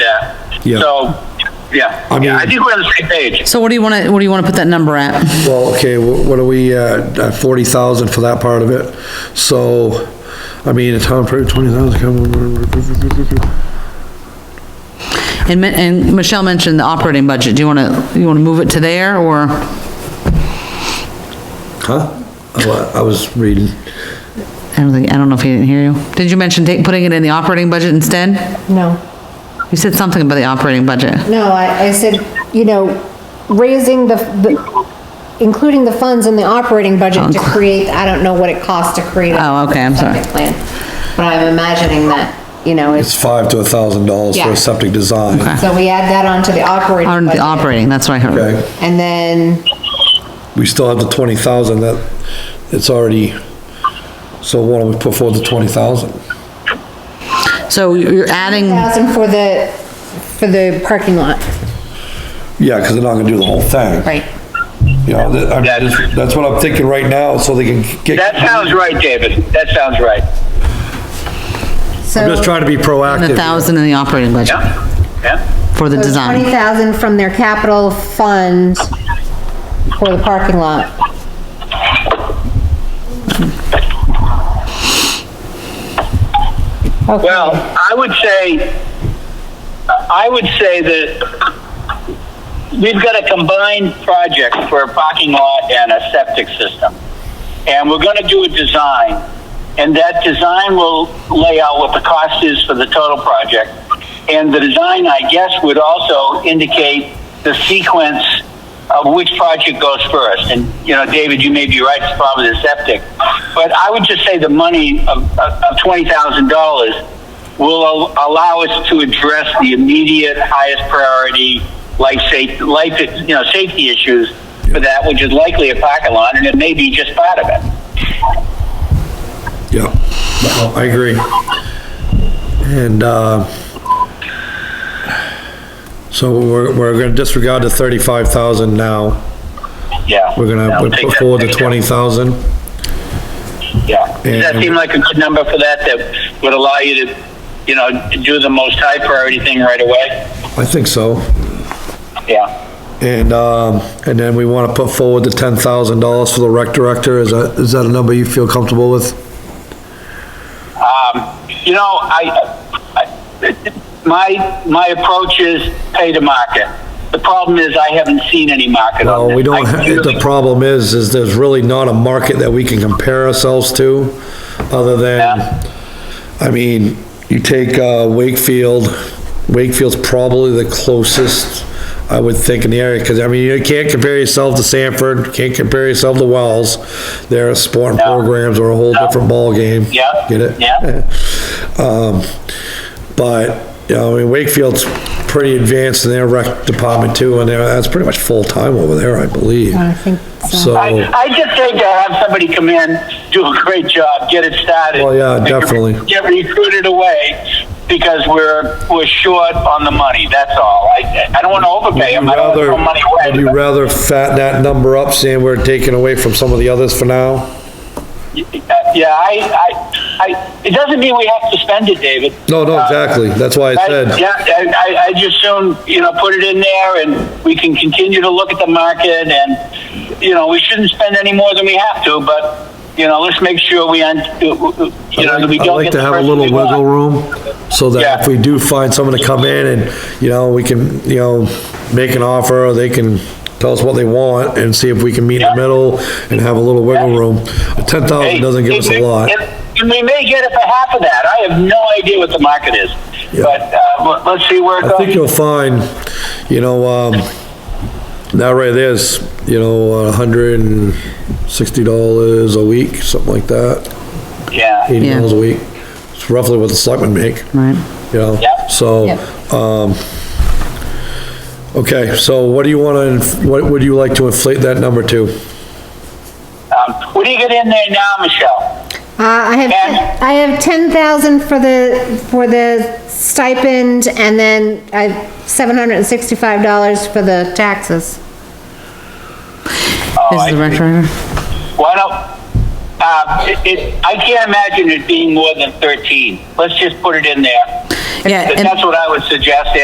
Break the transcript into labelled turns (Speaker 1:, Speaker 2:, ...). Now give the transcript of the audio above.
Speaker 1: Yeah.
Speaker 2: So, yeah,
Speaker 1: I mean-
Speaker 2: Yeah, I think we're on the same page.
Speaker 3: So what do you want to, what do you want to put that number at?
Speaker 1: Well, okay, wh- what are we, uh, forty thousand for that part of it? So, I mean, a town probably twenty thousand.
Speaker 3: And, Mi- and Michelle mentioned the operating budget. Do you want to, you want to move it to there or?
Speaker 1: Huh? I wa- I was reading.
Speaker 3: I don't think, I don't know if he didn't hear you. Did you mention ta- putting it in the operating budget instead?
Speaker 4: No,
Speaker 3: You said something about the operating budget.
Speaker 4: no, I, I said, you know, raising the, the, including the funds in the operating budget to create, I don't know what it costs to create. a
Speaker 3: Oh, okay, I'm sorry.
Speaker 4: septic Plan, but I'm imagining that, you know,
Speaker 1: It's
Speaker 4: it's,
Speaker 1: five to a thousand dollars for
Speaker 4: Yeah.
Speaker 1: a septic design.
Speaker 4: so we add that onto the operating.
Speaker 3: On the
Speaker 4: budget.
Speaker 3: operating, that's what I heard.
Speaker 1: Okay,
Speaker 4: And then,
Speaker 1: we still have the twenty thousand that, it's already, so why don't we put forward the twenty thousand?
Speaker 3: So you're adding,
Speaker 4: thousand for the, for the parking lot,
Speaker 1: Yeah, because they're not gonna do the whole thing.
Speaker 4: right?
Speaker 1: You know, that- I'm
Speaker 2: That's-
Speaker 1: just- that's what I'm thinking right now, so they can get.
Speaker 2: That sounds right, David. That sounds right.
Speaker 1: I'm just trying to be proactive.
Speaker 3: a
Speaker 1: here.
Speaker 3: thousand in the operating budget
Speaker 2: Yeah, yeah.
Speaker 3: for the
Speaker 4: Twenty
Speaker 3: design.
Speaker 4: thousand from their capital fund for the parking lot. Okay.
Speaker 2: Well, I would say, I would say that we've got a combined project for a parking lot and a septic system. And we're gonna do a design, and that design will lay out what the cost is for the total project. And the design, I guess, would also indicate the sequence of Uh, which project goes first. And, you know, David, you may be right, it's probably the septic. But I would just say the money of, of of $20,000 will al- allow us to address the immediate highest priority life safety, life, you know, safety issues for that, which is likely a parking lot, and it may be just part of it.
Speaker 1: Yeah, no, I agree. And, uh, so we're, we're gonna disregard the thirty-five thousand now.
Speaker 2: Yeah.
Speaker 1: We're
Speaker 2: Yeah,
Speaker 1: gonna
Speaker 2: take
Speaker 1: put
Speaker 2: that-
Speaker 1: forward the
Speaker 2: take that.
Speaker 1: twenty thousand.
Speaker 2: Yeah. Does that
Speaker 1: And-
Speaker 2: seem like a good number for that, that would allow you to, you know, do the most high priority thing right away?
Speaker 1: I think so.
Speaker 2: Yeah.
Speaker 1: And, um, and then we wanna put forward the ten thousand dollars for the rec director. Is that, is that a number you feel comfortable with?
Speaker 2: Um, you know, I, I, my, my approach is pay to market. The problem is I haven't seen any market on
Speaker 1: Well,
Speaker 2: this.
Speaker 1: we don't,
Speaker 2: I
Speaker 1: ha- the
Speaker 2: really-
Speaker 1: problem is, is there's really not a market that we can compare ourselves to, other
Speaker 2: Yeah.
Speaker 1: than, I mean, you take, uh, Wakefield, Wakefield's probably the closest, I would think, in the area, because, I mean, you can't compare yourself to Sanford, you can't compare yourself to Wells. Their sporting
Speaker 2: No.
Speaker 1: programs are a whole different ballgame.
Speaker 2: Yeah.
Speaker 1: Get it?
Speaker 2: Yeah.
Speaker 1: Um, but, you know, I mean, Wakefield's pretty advanced in their rec department too, and they're, that's pretty much full-time over there, I believe.
Speaker 4: I think so.
Speaker 1: So,
Speaker 2: I, I just think to have somebody come in, do a great job, get it started.
Speaker 1: Well, yeah,
Speaker 2: and get-
Speaker 1: definitely.
Speaker 2: Get recruited away because we're, we're short on the money, that's all. I, I don't want to overpay
Speaker 1: would you
Speaker 2: them, I don't want to
Speaker 1: rather,
Speaker 2: throw money away.
Speaker 1: would you
Speaker 2: but-
Speaker 1: rather fatten that number up, saying we're taking away from some of the others for now?
Speaker 2: Yeah, I, I, I, it doesn't mean we have to spend it, David.
Speaker 1: No, no,
Speaker 2: Uh,
Speaker 1: exactly, that's why I
Speaker 2: I-
Speaker 1: said,
Speaker 2: Yeah, I, I- I just soon, you know, put it in there and we can continue to look at the market and, you know, we shouldn't spend any more than we have to, but, you know, let's make sure we, un- you know, that
Speaker 1: I'd
Speaker 2: we
Speaker 1: like- I'd
Speaker 2: don't
Speaker 1: like
Speaker 2: get the
Speaker 1: to have a
Speaker 2: person
Speaker 1: little
Speaker 2: we want.
Speaker 1: wiggle room, so that
Speaker 2: Yeah.
Speaker 1: if we do find someone to come in and, you know, we can, you know, make an offer, or they can tell us what they want, and see if we can meet in the
Speaker 2: Yeah.
Speaker 1: middle, and have a little wiggle room. Ten
Speaker 2: Hey,
Speaker 1: thousand Oh, doesn't give us
Speaker 2: if
Speaker 1: a
Speaker 2: we-
Speaker 1: lot.
Speaker 2: if- And we may get it for half of that. I have no idea what the market is,
Speaker 1: Yeah.
Speaker 2: but, uh, let- let's see where it
Speaker 1: I think
Speaker 2: goes.
Speaker 1: you'll find, you know, um, that right there's, you know, a hundred and sixty dollars a week, something like that,
Speaker 2: Yeah.
Speaker 1: eighty
Speaker 3: Yeah.
Speaker 1: dollars a week. It's roughly what the selectmen make,
Speaker 3: Right.
Speaker 1: you know,
Speaker 2: Yeah.
Speaker 1: so, um, okay, so what do you wanna, inf- what would you like to inflate that number to?
Speaker 2: Um, what do you get in there now, Michelle?
Speaker 4: Uh, I have, I have ten thousand for the, for the stipend and then I have seven hundred and sixty-five dollars for the taxes.
Speaker 2: Oh,
Speaker 3: This
Speaker 2: I
Speaker 3: is the
Speaker 2: see.
Speaker 3: rec director.
Speaker 2: Why don't, uh, it, it, I can't imagine it being more than 13. Let's just put it in there.
Speaker 3: Yeah,
Speaker 2: That-
Speaker 3: and-
Speaker 2: That's what I would suggest,